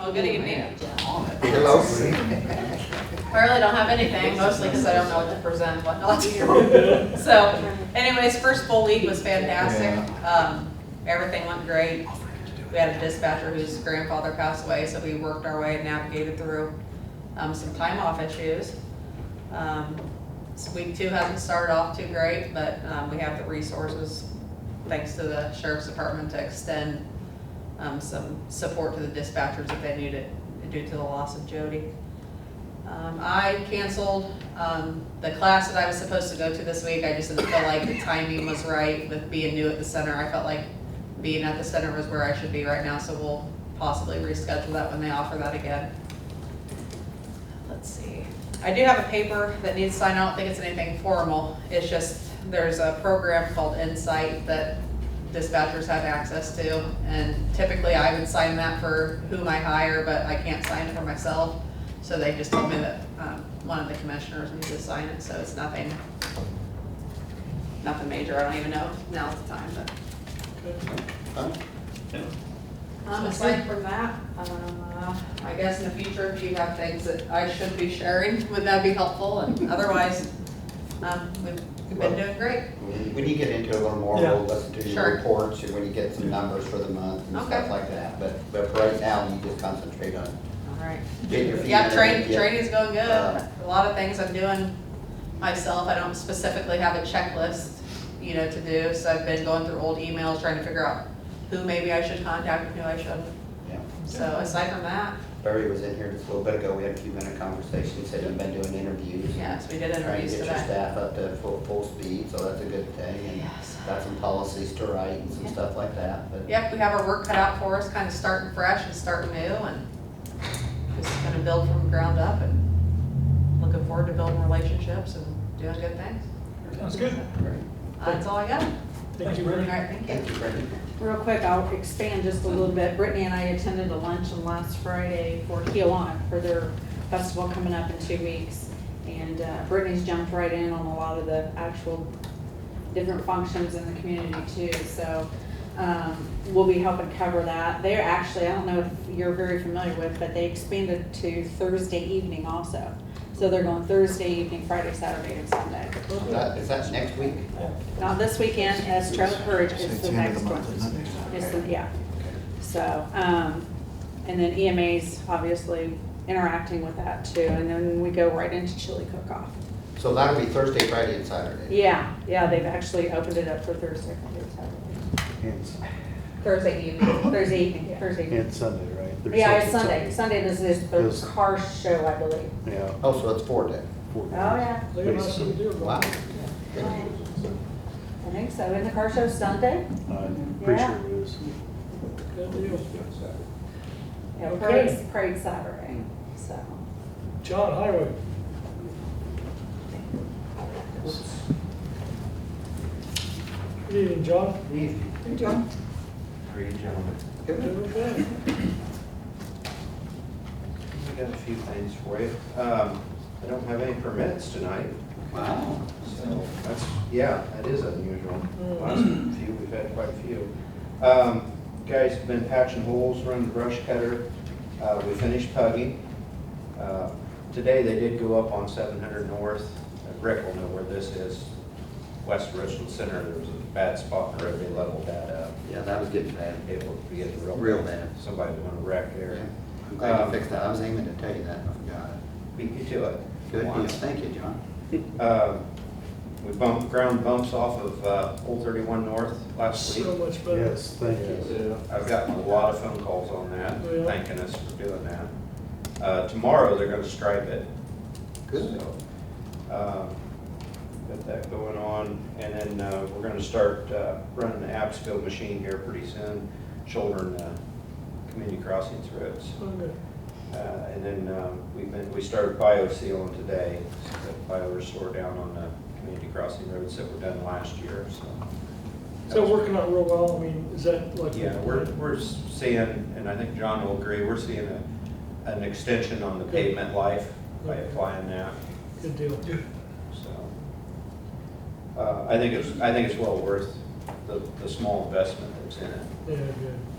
I'm gonna get mad. Hello. I really don't have anything, mostly because I don't know what to present and what not to do. So anyways, first full week was fantastic. Um, Everything went great. We had a dispatcher whose grandfather passed away, so we worked our way and navigated through um, some time off issues. Um, so Week two hasn't started off too great, but um, we have the resources, thanks to the sheriff's department, to extend um, some support to the dispatchers if they need it due to the loss of Jody. Um, I canceled, um, the class that I was supposed to go to this week, I just didn't feel like the timing was right with being new at the center, I felt like being at the center was where I should be right now, so we'll possibly reschedule that when they offer that again. Let's see, I do have a paper that needs signed, I don't think it's anything formal, it's just, there's a program called Insight that dispatchers have access to, and typically I would sign that for whom I hire, but I can't sign it for myself. So they just told me that, um, one of the commissioners needs to sign it, so it's nothing, nothing major, I don't even know if now's the time, but. Um, aside from that, uh, I guess in the future, if you have things that I should be sharing, would that be helpful? And otherwise, um, we've we've been doing great. When you get into it a little more, Yeah. we'll listen to Sure. your reports and when you get some numbers for the month and Okay. stuff like that. But, but for right now, you just concentrate on All right. getting your feet. Yeah, under train, you. training's going good. Uh, A lot of things I'm doing myself. I don't specifically have a checklist, you know, to do. So I've been going through old emails, trying to figure out who maybe I should contact and who I shouldn't. Yeah. So aside from that, Barry was in here just a little bit ago, we had a few minute conversation, said you've been doing interviews. yes, we did Trying to interviews get your today. staff up to full, full speed, so that's a good thing. and Yes. Got some policies to write and some Yeah. stuff like that, but. Yep, we have our work cut out for us, kind of starting fresh and starting new and just kind of build from the ground up and looking forward to building relationships and doing good things. Sounds good. Great. That's all I got. All Thank you, Brittany. right, thank you. Thank you, Brandon. Real quick, I'll expand just a little bit. Brittany and I attended a luncheon last Friday for Keelan for their festival coming up in two weeks. And uh, Brittany's jumped right in on a lot of the actual different functions in the community too. So um, we'll be helping cover that. They're actually, I don't know if you're very familiar with, but they expanded to Thursday evening also. So they're going Thursday evening, Friday, Saturday, and Sunday. Is that- Is that next week? Not this weekend, as Trail of Courage So is it's the the end of next the month, one. isn't it? It's the, yeah. So, um, and then EMA's obviously interacting with that too, and then we go right into chili cook-off. So that'll be Thursday, Friday, and Saturday. Yeah, yeah, they've actually opened it up for Thursday, Friday, Saturday. It's, Thursday evening, Thursday evening, Thursday evening. it's Sunday, right? There's Yeah, such it's and Sunday, Sunday this is Yes. the car show, I believe. Yeah. Oh, so it's four days. four Oh, days. yeah, Look at us, we do it. Wow. I think so, and the car show's Sunday? I'm pretty Yeah. sure it is. Good deal. Yeah, Okay. parade's, parade's Saturday, so. John Highway. Good evening, John. Hey, John. How are you, gentlemen? Okay. I got a few things for you. Um, I don't have any permits tonight, Wow. so that's, yeah, that is unusual. Last few, we've had quite a few. Um, guys have been patching holes, running the brush cutter. Uh, we finished pugging. Uh, Today, they did go up on seven hundred north. Uh, Rick will know where this is. West Richland Center, there was a bad spot where they leveled that uh, up. Yeah, that was getting bad. It will be a real. Real bad. Somebody went to wreck Yeah. there. I'm glad you Um, fixed that. I was aiming to tell you that, and I forgot it. Beat you to it. Good deal. Once. Thank you, John. Uh, We bumped, ground bumps off of uh, Old 31 North last So week. much better. Yes, thank you. I've gotten a lot of phone calls on that, Yeah. thanking us for doing that. Uh, Tomorrow, they're gonna stripe it. Good. So, um, Got that going on, and then uh, we're gonna start uh, running the Absco machine here pretty soon, shouldering the community crossings roads. Okay. Uh, And then um, we've been, we started bio sealing today, so that bio restore down on the community crossing roads that were done last year, so. Is that working out real well? I mean, is that like? Yeah, we're, we're seeing, and I think John will agree, we're seeing a, an extension on the pavement life by applying that, Good deal. so. Uh, I think it's, I think it's well worth the, the small investment that's in it. Yeah, good.